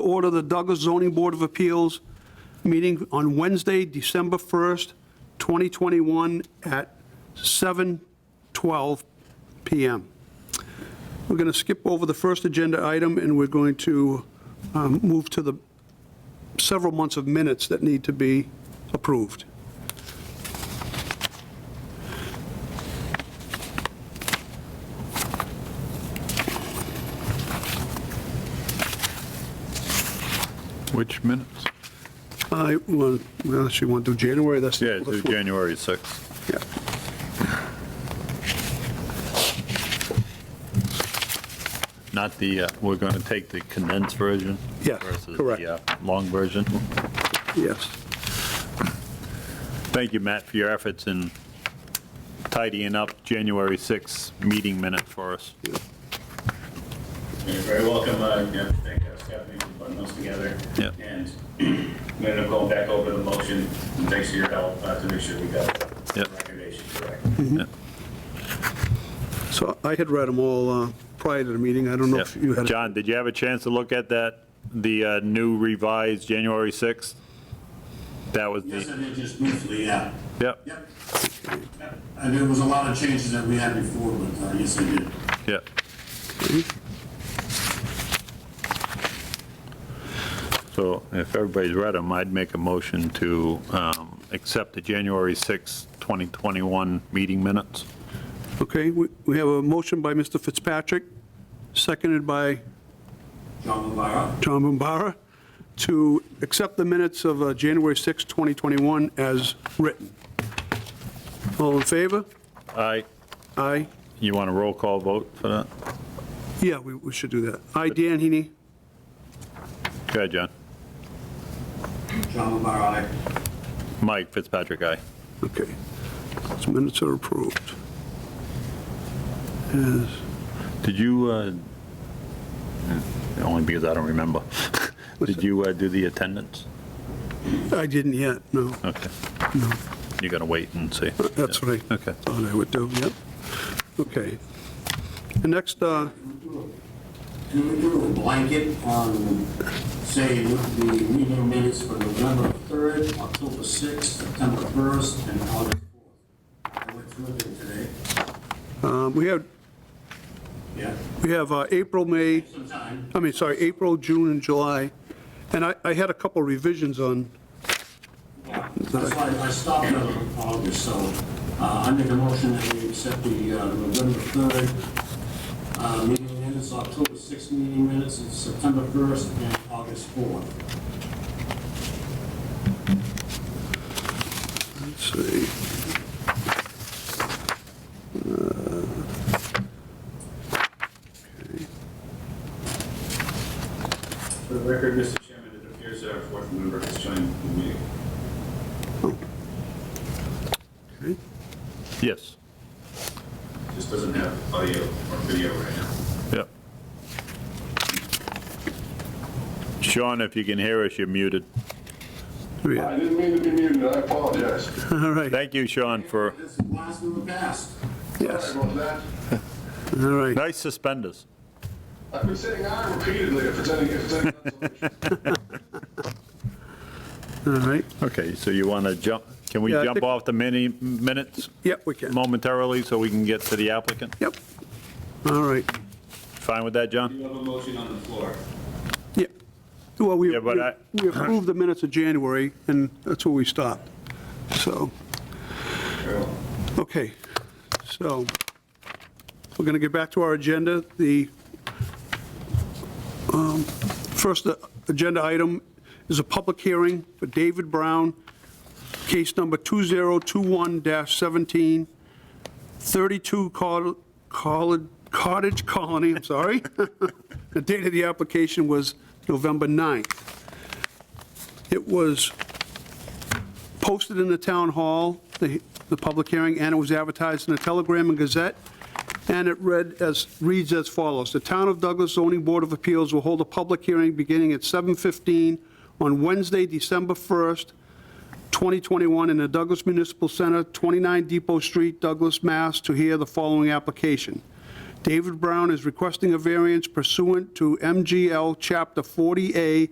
order the Douglas Zoning Board of Appeals meeting on Wednesday, December 1st, 2021 at 7:12 PM. We're going to skip over the first agenda item, and we're going to um, move to the several months of minutes that need to be approved. Which minutes? I, well, unless you want to do January, that's. Yeah, it's January 6th. Yeah. Not the, uh, we're going to take the condensed version? Yes, versus correct. the, uh, Long version. Yes. Thank you, Matt, for your efforts in tidying up January 6th meeting minutes for us. You're very welcome. uh, I think I've got maybe putting those together. Yeah. And I'm going to go back over the motion, and thanks for your help uh, to make sure we got Yeah. the recommendation correct. Mm-hmm. So I had read them all uh, prior to the meeting. I don't know Yeah. if you had. John, did you have a chance to look at that, the uh, new revised January 6th? That was Yes, I the, did just briefly, yeah. yep, Yep. Yep. And there was a lot of changes that we had before, but uh, yes, I did. yep. So if everybody's read them, I'd make a motion to um, accept the January 6th, 2021 meeting minutes. Okay, we we have a motion by Mr. Fitzpatrick, seconded by John Levara, John Bombara, to accept the minutes of uh, January 6, 2021 as written. All in favor? Aye. Aye. You want a roll call vote for that? Yeah, we we should do that. Aye, Dan Heaney. Go ahead, John. John Levara, aye. Mike Fitzpatrick, aye. Okay. Those minutes are approved. Did you, uh, only because I don't remember, did you uh, do the attendance? I didn't yet, no. Uh, Okay. You're going to wait and see. That's what I Okay. thought I would do, yep. Okay. The next, uh, Can we do a blanket on, say, the meeting minutes for November 3rd, October 6th, September 1st, and August 4th? I went through them today. um, we have, Yeah. we have uh, April, May, Some time. I mean, sorry, April, June, and July, and I I had a couple revisions on, Yeah. That's why I stopped on August, so uh, I make a motion that we accept the uh, November 3rd uh, meeting minutes, October 6th meeting minutes, and September 1st, and August 4th. let's see. For the record, Mr. Chairman, it appears our fourth member has joined the meeting. Yes. Just doesn't have audio or video right now. Yep. Sean, if you can hear us, you're muted. Here we are. I didn't mean to be muted, I apologize. All right, Thank you, Sean, for, This is the last one we passed. yes, Sorry about that. all right. nice suspenders. I've been saying I repeatedly if it's any, if it's any consolation. All right, Okay, so you want to jump, can we Yeah, I jump think- off the mini minutes yep, we can, momentarily so we can get to the applicant? yep. All right, Fine with that, John? You have a motion on the floor. yeah. Well, we Yeah, but I- we approved the minutes of January, and that's where we stopped, so. Very well. Okay, so we're going to get back to our agenda. The um, first agenda item is a public hearing for David Brown, case number 2021-17, 32 Col- Col- Cottage Colony, I'm sorry. The date of the application was November 9th. It was posted in the town hall, the, the public hearing, and it was advertised in the Telegram and Gazette, and it read as, reads as follows. The Town of Douglas Zoning Board of Appeals will hold a public hearing beginning at 7:15 on Wednesday, December 1st, 2021, in the Douglas Municipal Center, 29 Depot Street, Douglas, Mass., to hear the following application. David Brown is requesting a variance pursuant to MGL Chapter 40A,